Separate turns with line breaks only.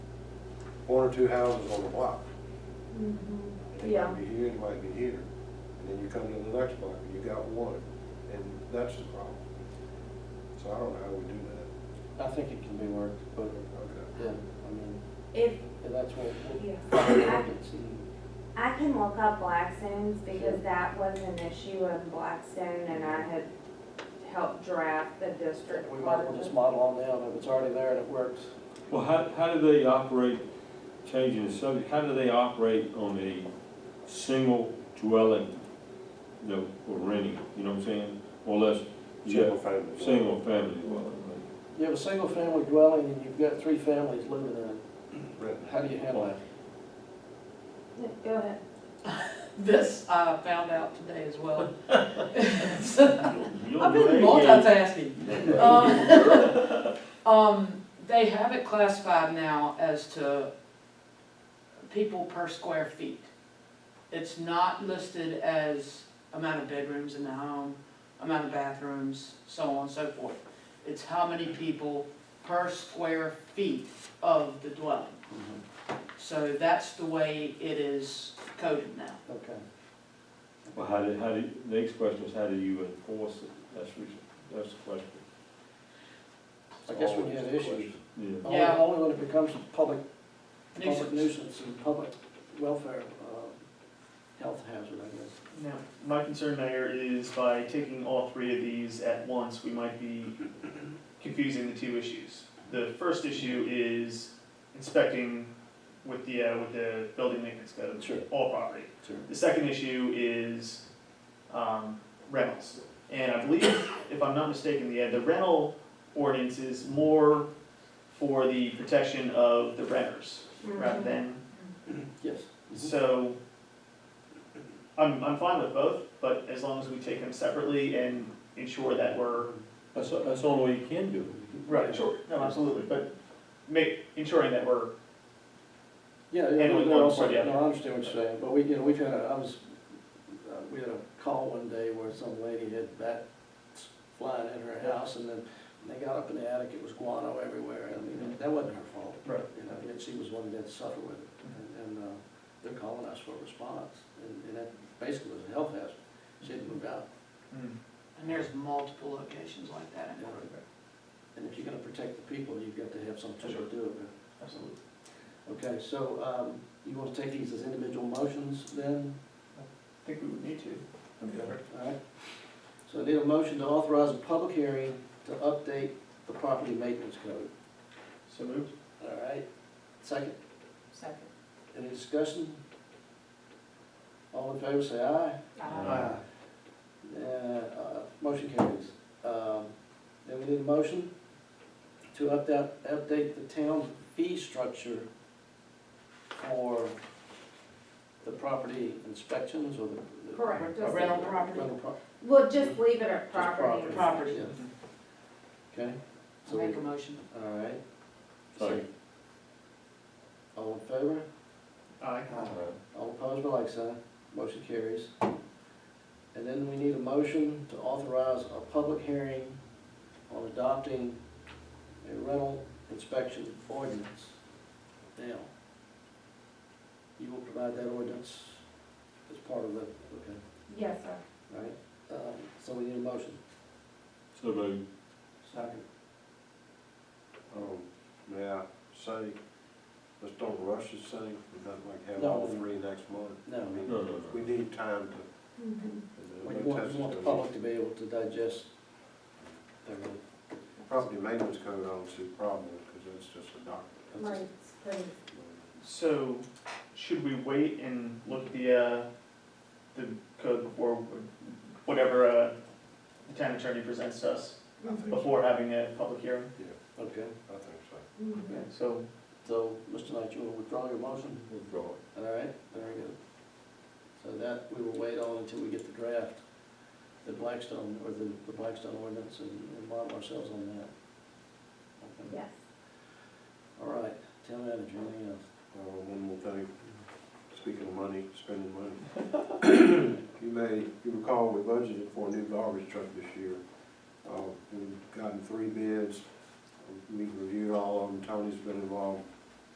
one or two houses on the block.
Mm-hmm.
It
Yeah.
might be here, it might be here, and then you come to the next block, and you got one, and that's the problem. So I don't know how we do that.
I think it can be worked, but,
Okay.
yeah, I mean,
If,
that's what, what-
Yeah.
I can see.
I can look up Blackstone's because that was an issue of Blackstone and I had helped draft the district.
We might as well just model on down, if it's already there and it works.
Well, how, how do they operate, changing the subject, how do they operate on a single dwelling that we're renting, you know what I'm saying? Or less, you
Single
got
family.
single family dwelling, right?
You have a single-family dwelling and you've got three families living in it,
Right.
how do you handle that?
Go ahead.
This I found out today as well.
You don't
I've
do
been
any-
multitasking. Um, Um, they have it classified now as to people per square feet. It's not listed as amount of bedrooms in the home, amount of bathrooms, so on and so forth. It's how many people per square feet of the dwelling.
Mm-hmm.
So that's the way it is coded now.
Okay.
Well, how do, how do, the next question is, how do you enforce it? That's, the- that's the question.
I guess when
Always
you have
the
issues,
question.
Yeah.
only,
Yeah.
only when it becomes public, public
Nuisance.
nuisance and public welfare, uh, health hazard, I guess.
Now, my concern, Mayor, is by taking all three of these at once, we might be confusing the two issues. The first issue is inspecting with the, uh, with the building maintenance code.
Sure.
All property.
Sure.
The second issue is, um, rentals. And I believe, if I'm not mistaken, the, the rental ordinance is more for the protection of the renters rather than
Yes.
so, I'm, I'm fine with both, but as long as we take them separately and ensure that we're.
That's, that's the only way you can do it.
Sure, no, absolutely, but make, ensuring that we're.
Yeah,
And
yeah, no,
we want
no, I'm
to sort
sorry,
it
no,
out.
I understand what you're saying, but we, you know, we've had a, I was, uh, we had a call one day where some lady had bats flying in her house, and then when they got up in the attic, it was guano everywhere, I mean, that wasn't her fault.
Right.
You know, yet she was one that had to suffer with it, and, and, uh, they're calling us for a response, and, and that basically was a health hazard, she had to move out.
Mm.
And there's multiple locations like that in Northern.
And if you're gonna protect the people, you've got to have some tool
Sure.
to do it with.
Absolutely.
Okay, so, um, you wanna take these as individual motions then?
I think we would need to.
Alright, so I need a motion to authorize a public hearing to update the property maintenance code.
So moved?
Alright, second,
Second.
any discussion? All in favor, say aye.
Aye.
Uh, uh, motion carries. Um, then we need a motion to update, update the town fee structure for the property inspections or the. the-
Correct, just-
Rental property.
Rental pro-
We'll just leave it at property.
property.
Property.
Yeah. Okay,
I
so we
make a motion.
All right.
Sorry.
All in favor?
Aye.
All opposed, by like sign. Motion carries. And then we need a motion to authorize a public hearing on adopting a rental inspection ordinance. Now, you will provide that ordinance as part of the, okay,
Yes, sir.
all right? Um, So we need a motion.
So, but
Second.
Um, may I say, let's don't rush this thing, we don't like have
No.
all three next month.
No.
I mean,
No, no, no.
We need time to.
Mm-hmm.
Well, you want, you want the public to be able to digest their own
Property maintenance code, I don't see a problem, because that's just a document.
Right, so-
So, should we wait and look at the, uh, the code before, whatever, uh, the town attorney presents to us
I
Mm-hmm.
think,
before having a public hearing?
Okay,
I think so.
Mhm.
So,
so, Mr. Knight, you want to withdraw your motion?
withdraw it.
All right, very good. So that, we will wait on until we get the draft, the Blackstone, or the, the Blackstone ordinance, and and model ourselves on that. Okay.
Yes.
All right, town manager, anything else?
Uh, one more thing, speaking of money, spending money. You may, you recall, we budgeted for a new garbage truck this year. Uh, we've gotten three bids, we reviewed all of them, Tony's been involved